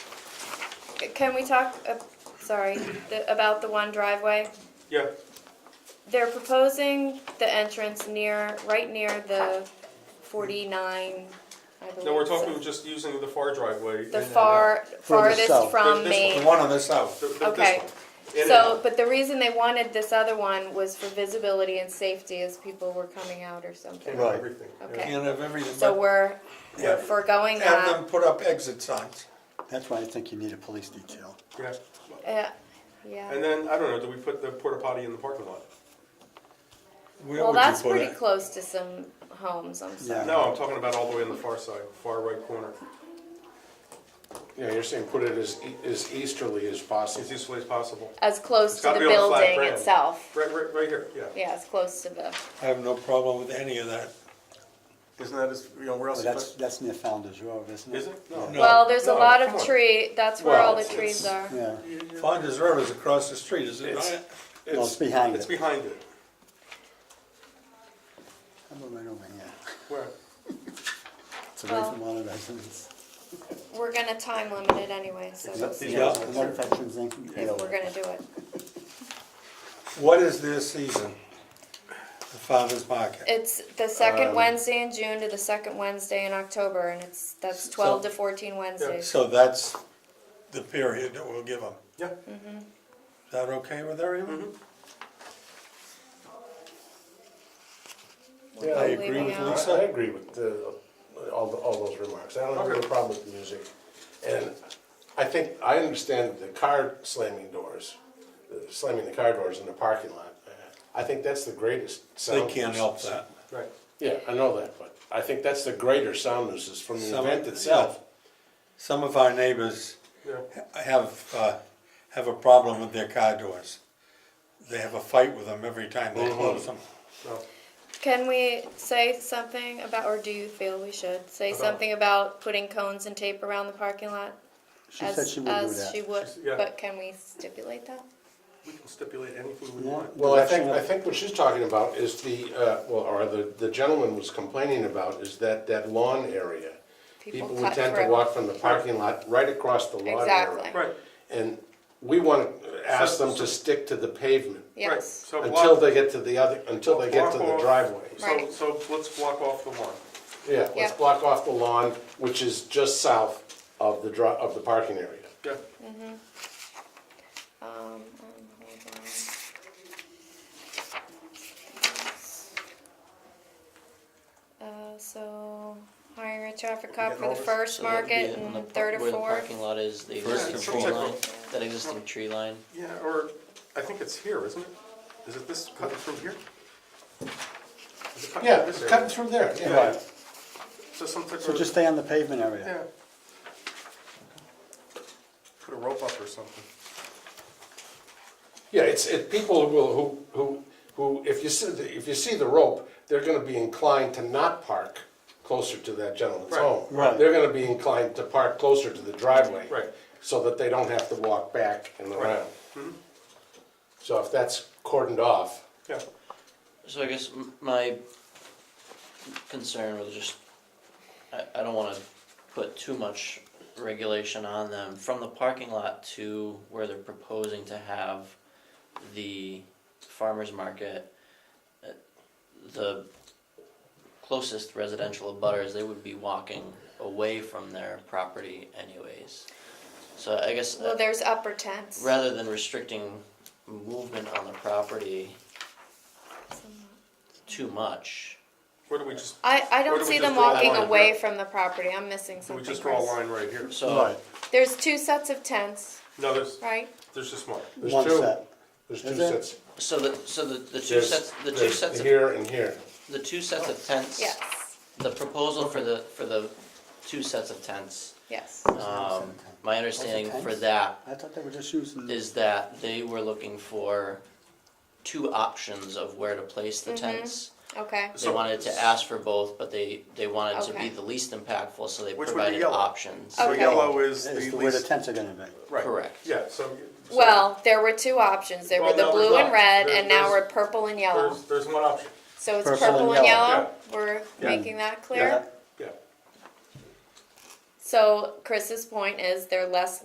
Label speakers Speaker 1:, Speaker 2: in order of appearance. Speaker 1: Can we talk, uh, sorry, the- about the one driveway?
Speaker 2: Yeah,
Speaker 1: They're proposing the entrance near, right near the 49, I believe.
Speaker 2: no, we're
Speaker 1: so-
Speaker 2: talking just using the far driveway.
Speaker 1: The
Speaker 2: in and out.
Speaker 1: far, farthest
Speaker 3: south.
Speaker 1: from
Speaker 2: This- this
Speaker 1: Maine.
Speaker 3: The one on the south.
Speaker 2: The- the- this
Speaker 1: Okay.
Speaker 2: one. In and
Speaker 1: So,
Speaker 2: out.
Speaker 1: but the reason they wanted this other one was for visibility and safety as people were coming out or something.
Speaker 2: Can't
Speaker 3: Right.
Speaker 2: have everything. yeah.
Speaker 1: Okay.
Speaker 4: Can't have everything,
Speaker 1: So
Speaker 4: but
Speaker 1: we're, we're
Speaker 4: Yeah.
Speaker 1: foregoing
Speaker 4: have
Speaker 1: that.
Speaker 4: them put up exit signs.
Speaker 3: That's why I think you need a police detail.
Speaker 2: Yeah,
Speaker 1: Uh, Yeah,
Speaker 2: and then, I don't know, do we put the porta potty in the parking lot?
Speaker 4: Where
Speaker 1: well,
Speaker 4: would you
Speaker 1: that's
Speaker 4: put
Speaker 1: pretty
Speaker 4: it?
Speaker 1: close to some homes, I'm sorry.
Speaker 3: Yeah.
Speaker 2: No, I'm talking about all the way on the far side, far right corner,
Speaker 5: Yeah, you're saying put it as, e- as easterly as possible.
Speaker 2: as usefully as possible.
Speaker 1: As close
Speaker 2: It's
Speaker 1: to
Speaker 2: gotta
Speaker 1: the
Speaker 2: be on a flat
Speaker 1: building
Speaker 2: ground.
Speaker 1: itself.
Speaker 2: Right, right, right here, yeah.
Speaker 1: Yeah, as close to the,
Speaker 4: I have no problem with any of that.
Speaker 2: Isn't that as, you know, where
Speaker 3: But that's, that's near Founder's Row, isn't it?
Speaker 2: Is it? No.
Speaker 4: No.
Speaker 1: well, there's a
Speaker 2: no,
Speaker 1: lot of
Speaker 2: come on.
Speaker 1: tree, that's where
Speaker 5: Well,
Speaker 1: all the
Speaker 5: it's-
Speaker 1: trees are.
Speaker 3: Yeah,
Speaker 4: Founder's Road is across the street, is it
Speaker 5: It's-
Speaker 3: well,
Speaker 4: not?
Speaker 5: It's-
Speaker 3: it's behind
Speaker 2: It's
Speaker 3: it.
Speaker 2: behind it.
Speaker 3: How about right over here?
Speaker 2: Where?
Speaker 3: It's away
Speaker 1: Well-
Speaker 3: from all the residents.
Speaker 1: We're gonna time limit it anyway, so we'll see
Speaker 3: Yeah,
Speaker 2: Yeah.
Speaker 3: and that veterans thing.
Speaker 1: if we're gonna do it.
Speaker 4: What is their season? The farmer's market?
Speaker 1: It's the
Speaker 3: Um,
Speaker 1: second Wednesday in June to the second Wednesday in October, and it's, that's twelve to fourteen Wednesdays.
Speaker 4: So that's the period that we'll give them.
Speaker 2: Yeah,
Speaker 1: Mm-hmm.
Speaker 4: Is that okay with everyone?
Speaker 5: Yeah,
Speaker 4: I
Speaker 5: I
Speaker 4: agree
Speaker 1: Leaving
Speaker 4: with
Speaker 1: out-
Speaker 4: Lisa.
Speaker 5: I agree with the, all, the- all those remarks. I don't have any
Speaker 2: Okay.
Speaker 5: problem with the music. And I think, I understand the car slamming doors, uh, slamming the car doors in the parking lot. I think that's the greatest
Speaker 4: They
Speaker 5: sound.
Speaker 4: can't help that.
Speaker 2: right.
Speaker 5: Yeah, I know that, but I think that's the greater sound nuisance from the
Speaker 4: Some-
Speaker 5: event itself.
Speaker 4: Some of our neighbors
Speaker 2: Yeah,
Speaker 4: have, uh, have a problem with their car doors. They have a fight with them every time they close them.
Speaker 2: no.
Speaker 1: Can we say something about, or do you feel we should, say
Speaker 2: About-
Speaker 1: something about putting cones and tape around the parking lot?
Speaker 3: She
Speaker 1: as-
Speaker 3: said she would do
Speaker 1: As she
Speaker 3: that.
Speaker 1: would,
Speaker 2: yeah.
Speaker 1: but can we stipulate that?
Speaker 2: We can stipulate anything we
Speaker 3: Yeah.
Speaker 2: want.
Speaker 5: Well, I think, I think what she's talking about is the, uh, well, or the, the gentleman was complaining about is that, that lawn area.
Speaker 1: People
Speaker 5: People would
Speaker 1: cut
Speaker 5: tend to
Speaker 1: through.
Speaker 5: walk from the parking lot right across the lawn
Speaker 1: Exactly.
Speaker 5: area.
Speaker 2: Right,
Speaker 5: And we want to ask them to stick to the pavement
Speaker 2: right,
Speaker 1: Yes.
Speaker 2: so
Speaker 5: until
Speaker 2: block,
Speaker 5: they get to the other, until they get to the
Speaker 2: Block off.
Speaker 5: driveways.
Speaker 2: so,
Speaker 1: Right.
Speaker 2: so let's block off the lawn.
Speaker 5: Yeah, let's
Speaker 1: Yeah.
Speaker 5: block off the lawn, which is just south of the dri, of the parking area.
Speaker 2: Yeah,
Speaker 1: Um, um, hold on. Uh, so hiring a traffic cop for the first
Speaker 6: So that would be
Speaker 1: market
Speaker 6: on the
Speaker 1: and
Speaker 6: par-
Speaker 1: third or
Speaker 6: Where the
Speaker 1: fourth.
Speaker 6: parking lot is, the
Speaker 4: First
Speaker 6: existing
Speaker 4: and
Speaker 6: tree
Speaker 2: fourth.
Speaker 6: line, that existing tree line.
Speaker 2: yeah, or, I think it's here, isn't it? Is it this cut from here? Is it cut from
Speaker 5: Yeah,
Speaker 2: this
Speaker 5: it's
Speaker 2: area?
Speaker 5: cutting through there, yeah.
Speaker 2: Yeah. So some type
Speaker 3: So
Speaker 2: of-
Speaker 3: just stay on the pavement area.
Speaker 2: yeah. Put a rope up or something.
Speaker 5: Yeah, it's, it, people will, who, who, who, if you see, the- if you see the rope, they're gonna be inclined to not park closer to that gentleman's
Speaker 2: Right,
Speaker 5: home.
Speaker 4: right.
Speaker 5: They're gonna be inclined to park closer to the driveway.
Speaker 2: Right.
Speaker 5: So that they don't have to walk back and around.
Speaker 6: Mm-hmm.
Speaker 5: So if that's cordoned off,
Speaker 2: Yeah,
Speaker 6: So I guess m- my concern was just, I, I don't wanna put too much regulation on them. From the parking lot to where they're proposing to have the farmer's market, uh, the closest residential abutters, they would be walking away from their property anyways. So I guess. uh,
Speaker 1: Well, there's upper tents.
Speaker 6: rather than restricting movement on the property too much.
Speaker 2: where do we just,
Speaker 1: I, I
Speaker 2: Or
Speaker 1: don't
Speaker 2: do we
Speaker 1: see
Speaker 2: just
Speaker 1: them
Speaker 2: draw a
Speaker 1: walking
Speaker 2: line
Speaker 1: away
Speaker 2: here?
Speaker 1: from the property. I'm missing
Speaker 2: do we
Speaker 1: something.
Speaker 2: just draw a
Speaker 1: Chris.
Speaker 2: line right here?
Speaker 6: So,
Speaker 1: There's two sets of tents,
Speaker 2: No, there's,
Speaker 1: right?
Speaker 2: there's just one.
Speaker 5: there's
Speaker 3: One
Speaker 5: two,
Speaker 3: set.
Speaker 5: there's two
Speaker 3: Is there?
Speaker 5: sets.
Speaker 6: so the, so the, the two
Speaker 5: There's-
Speaker 6: sets, the two
Speaker 5: there's
Speaker 6: sets of,
Speaker 5: Here and here.
Speaker 6: the two sets of tents,
Speaker 1: Yes,
Speaker 6: the proposal for the, for the two sets of tents,
Speaker 1: yes.
Speaker 6: um,
Speaker 3: tent.
Speaker 6: my understanding for
Speaker 3: tents?
Speaker 6: that
Speaker 3: I thought they were just using.
Speaker 6: is that they were looking for two options of where to place the tents.
Speaker 1: Okay.
Speaker 6: They wanted to ask for both, but they, they wanted to
Speaker 1: Okay.
Speaker 6: be the least impactful, so they
Speaker 2: Which would be
Speaker 6: provided
Speaker 2: yellow.
Speaker 6: options.
Speaker 2: So
Speaker 1: Okay.
Speaker 2: yellow is the
Speaker 3: Is
Speaker 2: least.
Speaker 3: the where the tents are gonna be.
Speaker 2: Right.
Speaker 6: Correct.
Speaker 2: Yeah, so. so
Speaker 1: Well, there were two options. There were
Speaker 2: Well,
Speaker 1: the
Speaker 2: no, there's
Speaker 1: blue and
Speaker 2: not.
Speaker 1: red,
Speaker 2: There-
Speaker 1: and now
Speaker 2: there's-
Speaker 1: we're purple and yellow.
Speaker 2: There's, there's one option,
Speaker 1: So it's
Speaker 3: Purple
Speaker 1: purple
Speaker 3: and
Speaker 1: and
Speaker 3: yellow.
Speaker 1: yellow? We're
Speaker 2: Yeah.
Speaker 1: making that clear?
Speaker 2: yeah.
Speaker 1: So Chris's point is they're less